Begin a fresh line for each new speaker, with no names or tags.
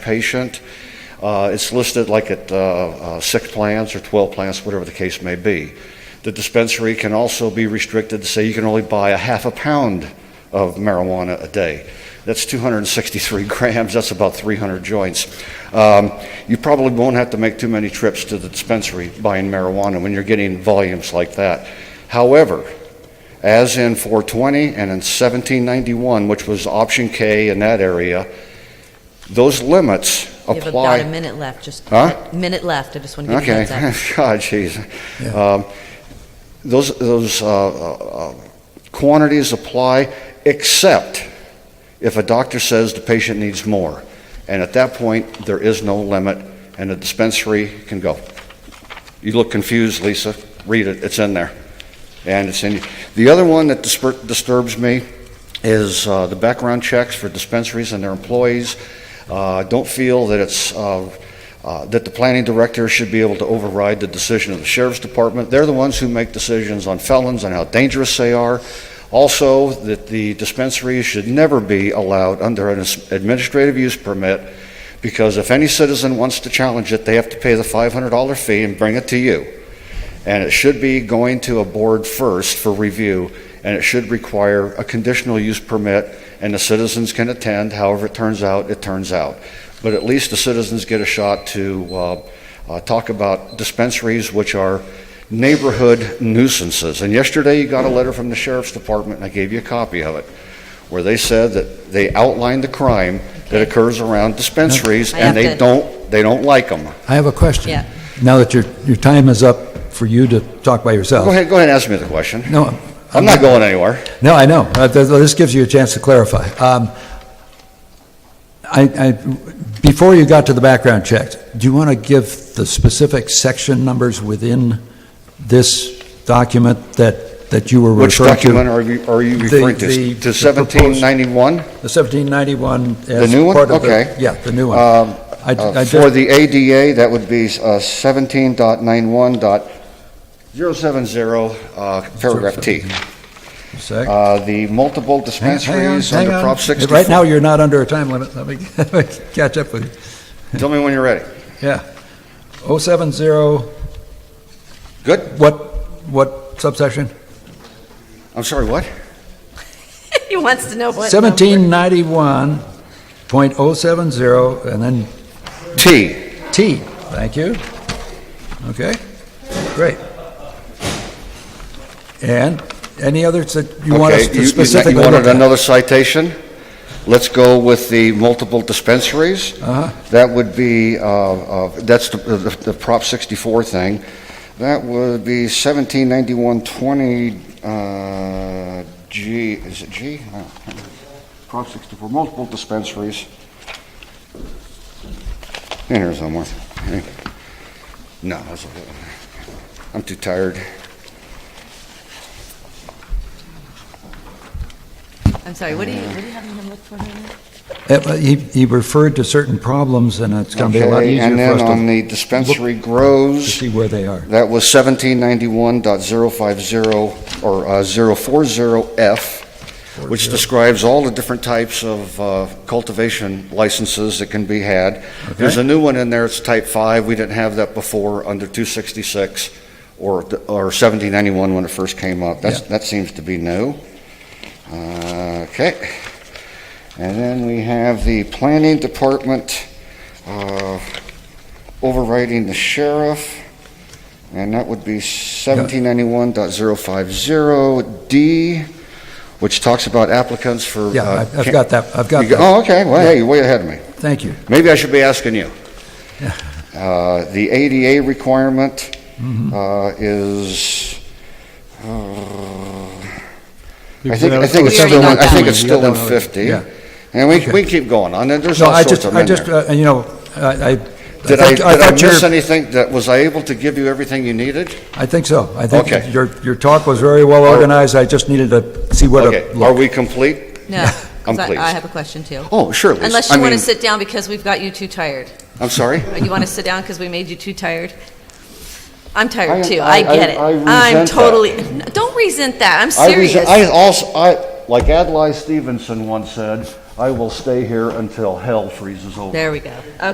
patient. Uh, It's listed like at uh, uh, six plants or 12 plants, whatever the case may be. The dispensary can also be restricted to say you can only buy a half a pound of marijuana a day. That's 263 grams, that's about 300 joints. Um, You probably won't have to make too many trips to the dispensary buying marijuana when you're getting volumes like that. However, as in 420 and in 1791, which was option K in that area, those limits
You have about a
apply.
minute left, just,
Huh?
minute left, I just want to give you a
Okay,
heads up.
God, jeez.
Yeah.
Um, Those, those uh, uh, uh, quantities apply except if a doctor says the patient needs more. And at that point, there is no limit, and the dispensary can go. You look confused, Lisa. Read it, it's in there. And it's in, the other one that disper- disturbs me is uh, the background checks for dispensaries and their employees. Uh, Don't feel that it's, uh, uh, that the planning director should be able to override the decision of the sheriff's department. They're the ones who make decisions on felons and how dangerous they are. Also, that the dispensaries should never be allowed under an administrative use permit, because if any citizen wants to challenge it, they have to pay the $500 fee and bring it to you. And it should be going to a board first for review, and it should require a conditional use permit, and the citizens can attend, however it turns out, it turns out. But at least the citizens get a shot to uh, uh, talk about dispensaries, which are neighborhood nuisances. And yesterday, you got a letter from the sheriff's department, and I gave you a copy of it, where they said that they outlined the crime that occurs around dispensaries,
I have
and they
to-
don't, they don't like them.
I have a question.
Yeah.
Now that your, your time is up for you to talk by yourself.
Go ahead, go ahead and ask me the question.
No.
I'm not going anywhere.
No, I know. Uh, th- This gives you a chance to clarify. Um, I, I, before you got to the background checks, do you want to give the specific section numbers within this document that, that you were
Which
referring to?
document are you, are you
The-
referring to?
the-
To
the proposed-
seventeen ninety-one?
The 1791 as
The new one?
part of the-
Okay. Um, uh,
Yeah, the new one. I- I
For
just-
the ADA, that would be uh, seventeen dot ninety-one dot zero seven zero, uh, paragraph T.
Sec.
Uh, the multiple
Hang- hang on,
dispensaries
hang
under
on.
Prop sixty-four.
Right now, you're not under a time limit. Let me catch up with you.
Tell me when you're ready.
Yeah. 070.
Good.
What, what subsection?
I'm sorry, what?
He wants to know what number.
1791.070, and then
T.
T. Thank you. Okay, great. And any others that you want
Okay,
us
you-
to
you-
specifically
You wanted
look at?
another citation? Let's go with the multiple dispensaries.
Uh-huh.
That would be, uh, uh, that's the- the the Prop 64 thing. That would be 179120, uh, G, is it G? No. Prop 64, multiple dispensaries. In here somewhere. No, that's- I'm too tired.
I'm sorry, what are you, what are you having him look for? here?
Uh, He he referred to certain problems, and it's going to be a lot
Okay,
easier
And
for
then
us
on
to
the dispensary
to
grows,
see where they are.
that was 1791.050 or uh, 040F, which describes all the different types of uh, cultivation licenses that can be had. There's a new one in there, it's type 5, we didn't have that before, under 266 or or 1791 when it first came up. That's- That seems to be new. Uh, Okay. And then we have the planning department uh, overriding the sheriff, and that would be 1791.050D, which talks about applicants for...
Yeah,
uh,
I've I've
can-
got that, I've got
You go-
that.
Oh, okay, well, hey, you're way ahead of me.
Thank you.
Maybe I should be asking you. Uh, The ADA requirement
Mm-hmm.
uh, is, uh, I think, I think it's
We already
still, in-
got
I
that
think
one.
it's still in
Yeah.
50.
Yeah.
And we,
Okay.
we keep going on, and there's
No,
all
I
sorts
just,
of
I
them in
just,
there.
uh, you know, I, I.
Did I,
think-
did I
thought your-
miss anything? That, was I able to give you everything you needed?
I think so. I think
Okay.
your, your talk was very well
Are-
organized. I just needed to see what
Okay,
it
are
looked.
we complete?
No,
I'm
'cause I- I
pleased.
have a question too.
Oh, sure, Lisa.
Unless
I
you want to
mean-
sit down because we've got you too tired.
I'm sorry?
You want to sit down because we made you too tired? I'm tired
I-
too,
I-
I get it.
I- I
I'm
resent that.
totally, No, don't resent that, I'm
I rese-
serious.
I also, I, like Adlai Stevenson once said, I will stay here until hell freezes over.
There we go.